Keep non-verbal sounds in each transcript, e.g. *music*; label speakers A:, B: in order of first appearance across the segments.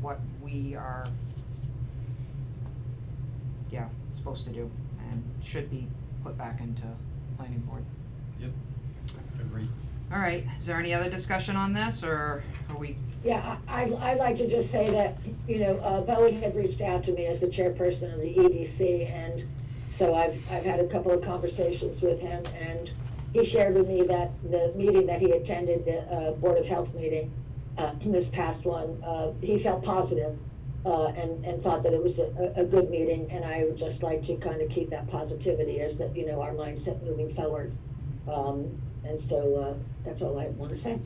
A: what we are, yeah, supposed to do, and should be put back into planning board.
B: Yep, agreed.
A: All right, is there any other discussion on this, or are we,
C: Yeah, I, I- I'd like to just say that, you know, uh, Boeing had reached out to me as the chairperson of the EDC, and so I've, I've had a couple of conversations with him, and he shared with me that the meeting that he attended, the uh, Board of Health meeting, uh, this past one, uh, he felt positive, uh, and, and thought that it was a, a a good meeting, and I would just like to kind of keep that positivity as that, you know, our mindset moving forward. Um, And so uh, that's all I want to say.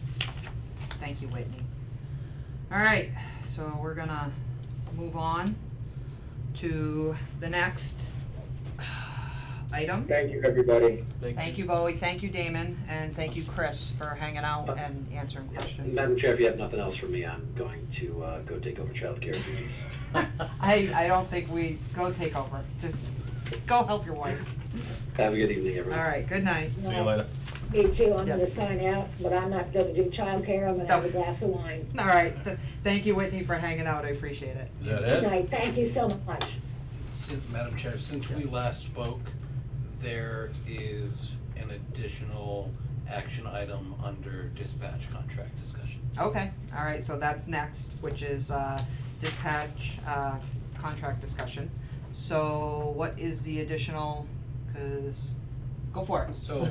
A: thank you, Whitney. All right, so we're gonna move on to the next item.
D: Thank you, everybody.
A: Thank you, Bowie, thank you, Damon, and thank you, Chris, for hanging out and answering questions.
E: Madam Chair, if you have nothing else for me, I'm going to uh, go take over childcare duties.
A: I, I don't think we, go take over, just go help your wife.
E: Have a good evening,
A: All
E: everyone.
A: right, good night.
B: See you later.
C: Me too, I'm gonna
A: Yes.
C: sign out, but I'm not gonna do childcare, I'm gonna have a
A: No.
C: glass of wine.
A: All right, th- thank you, Whitney, for hanging out, I appreciate it.
B: Is that
C: Good
B: it?
C: night, thank you so much.
F: Since, Madam Chair, since we last spoke, there is an additional action item under dispatch contract discussion.
A: Okay, all right, so that's next, which is uh, dispatch uh, contract discussion. So what is the additional, cause, go for it. *laughs*
F: So,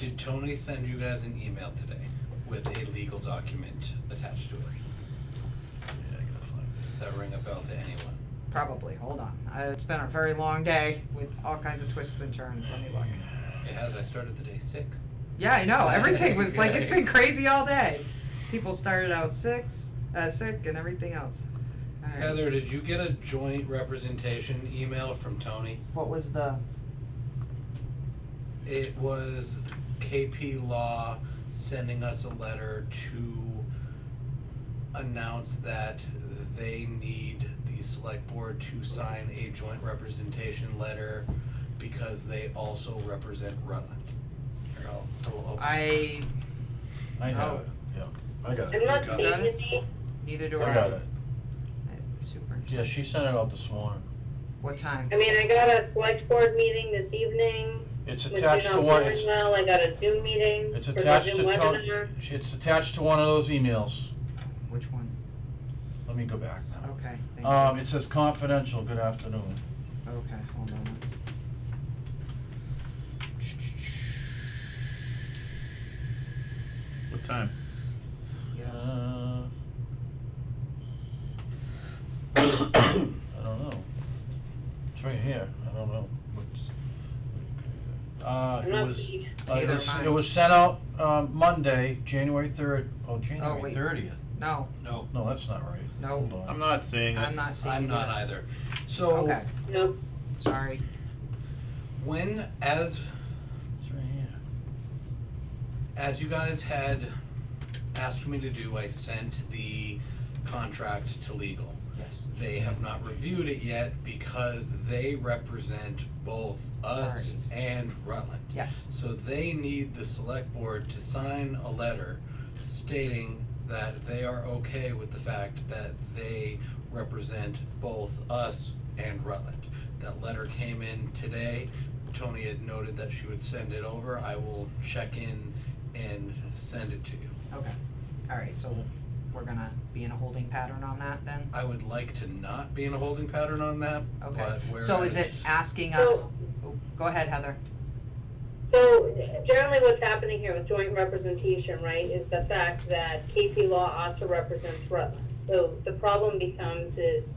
F: Did Tony send you guys an email today with a legal document attached to it?
B: Yeah, I gotta find
F: Does that ring a bell to anyone?
A: Probably, hold on, Uh, it's been a very long day with all kinds of twists and turns, let me look.
F: It has, I started the day sick.
A: Yeah, I know. Everything was like it's been crazy all day. People started out sick, uh, sick, and everything else. All right.
F: Heather, did you get a joint representation email from Tony?
A: what was the?
F: It was KP Law sending us a letter to announce that they need the select board to sign a joint representation letter because they also represent Rutland. Here, I'll- I will open-
A: I
B: I have
A: Oh.
B: it, yeah, I got it.
G: I'm not
A: Got
G: seeing
A: it?
G: the D.
A: neither
B: I
A: do I.
B: got it.
A: Super.
B: Yeah, she sent it out this morning.
A: What time?
G: I mean, I got a select board meeting this evening.
B: It's
G: with
B: attached
G: Janelle
B: to one, it's,
G: Cornwell. I got a Zoom meeting.
B: it's
G: for the
B: attached to
G: Zoom
B: Tony,
G: webinar.
B: she- it's attached to one of those emails.
A: Which one?
B: Let me go back now.
A: Okay. Thank
B: Um, it says confidential, good afternoon.
A: you. Okay. Hold on.
H: What time?
B: *coughs*
A: Yeah.
B: Uh, I don't know. It's right here, I don't know what's. Uh,
G: I'm
B: it
G: not
B: was,
G: seeing-
B: uh, it
A: Neither
B: was,
A: am I.
B: it was sent out, um, Monday, January third, oh, January
A: wait.
B: thirtieth.
A: No.
F: No,
B: No, that's not right.
A: No.
B: Hold on.
H: I'm not seeing it.
A: I'm not seeing.
F: I'm
A: it
F: not
A: either.
F: either. So
A: Okay.
G: No,
A: Sorry.
F: when, as
B: It's right here.
F: as you guys had asked me to do, I sent the contract to legal.
A: Yes.
F: They have not reviewed it yet because they represent both us
A: Parties.
F: and Rutland.
A: Yes.
F: So they need the select board to sign a letter stating that they are okay with the fact that they represent both us and Rutland. That letter came in today. Tony had noted that she would send it over. I will check in and send it to you.
A: Okay. All right. So we're gonna be in a holding pattern on that then.
F: I would like to not be in a holding pattern on that, but
A: Okay.
F: whereas.
A: So is it asking us? oh, Go ahead, Heather.
G: so generally what's happening here with joint representation, right, is the fact that KP Law also represents Rutland. So the problem becomes is,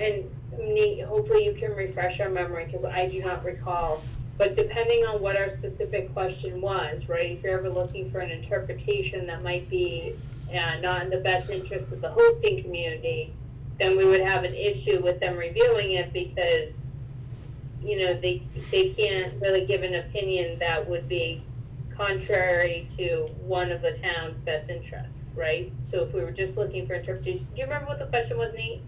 G: and Nate, hopefully you can refresh our memory, cause I do not recall. But depending on what our specific question was, right, if you're ever looking for an interpretation that might be uh, not in the best interest of the hosting community, then we would have an issue with them reviewing it because, you know, they, they can't really give an opinion that would be contrary to one of the town's best interests, right? So if we were just looking for interpretation, do you remember what the question was, Nate?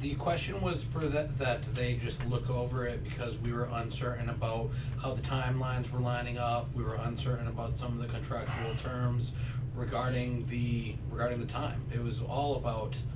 F: The question was for that, that they just look over it because we were uncertain about how the timelines were lining up. We were uncertain about some of the contractual terms regarding the, regarding the time. It was all about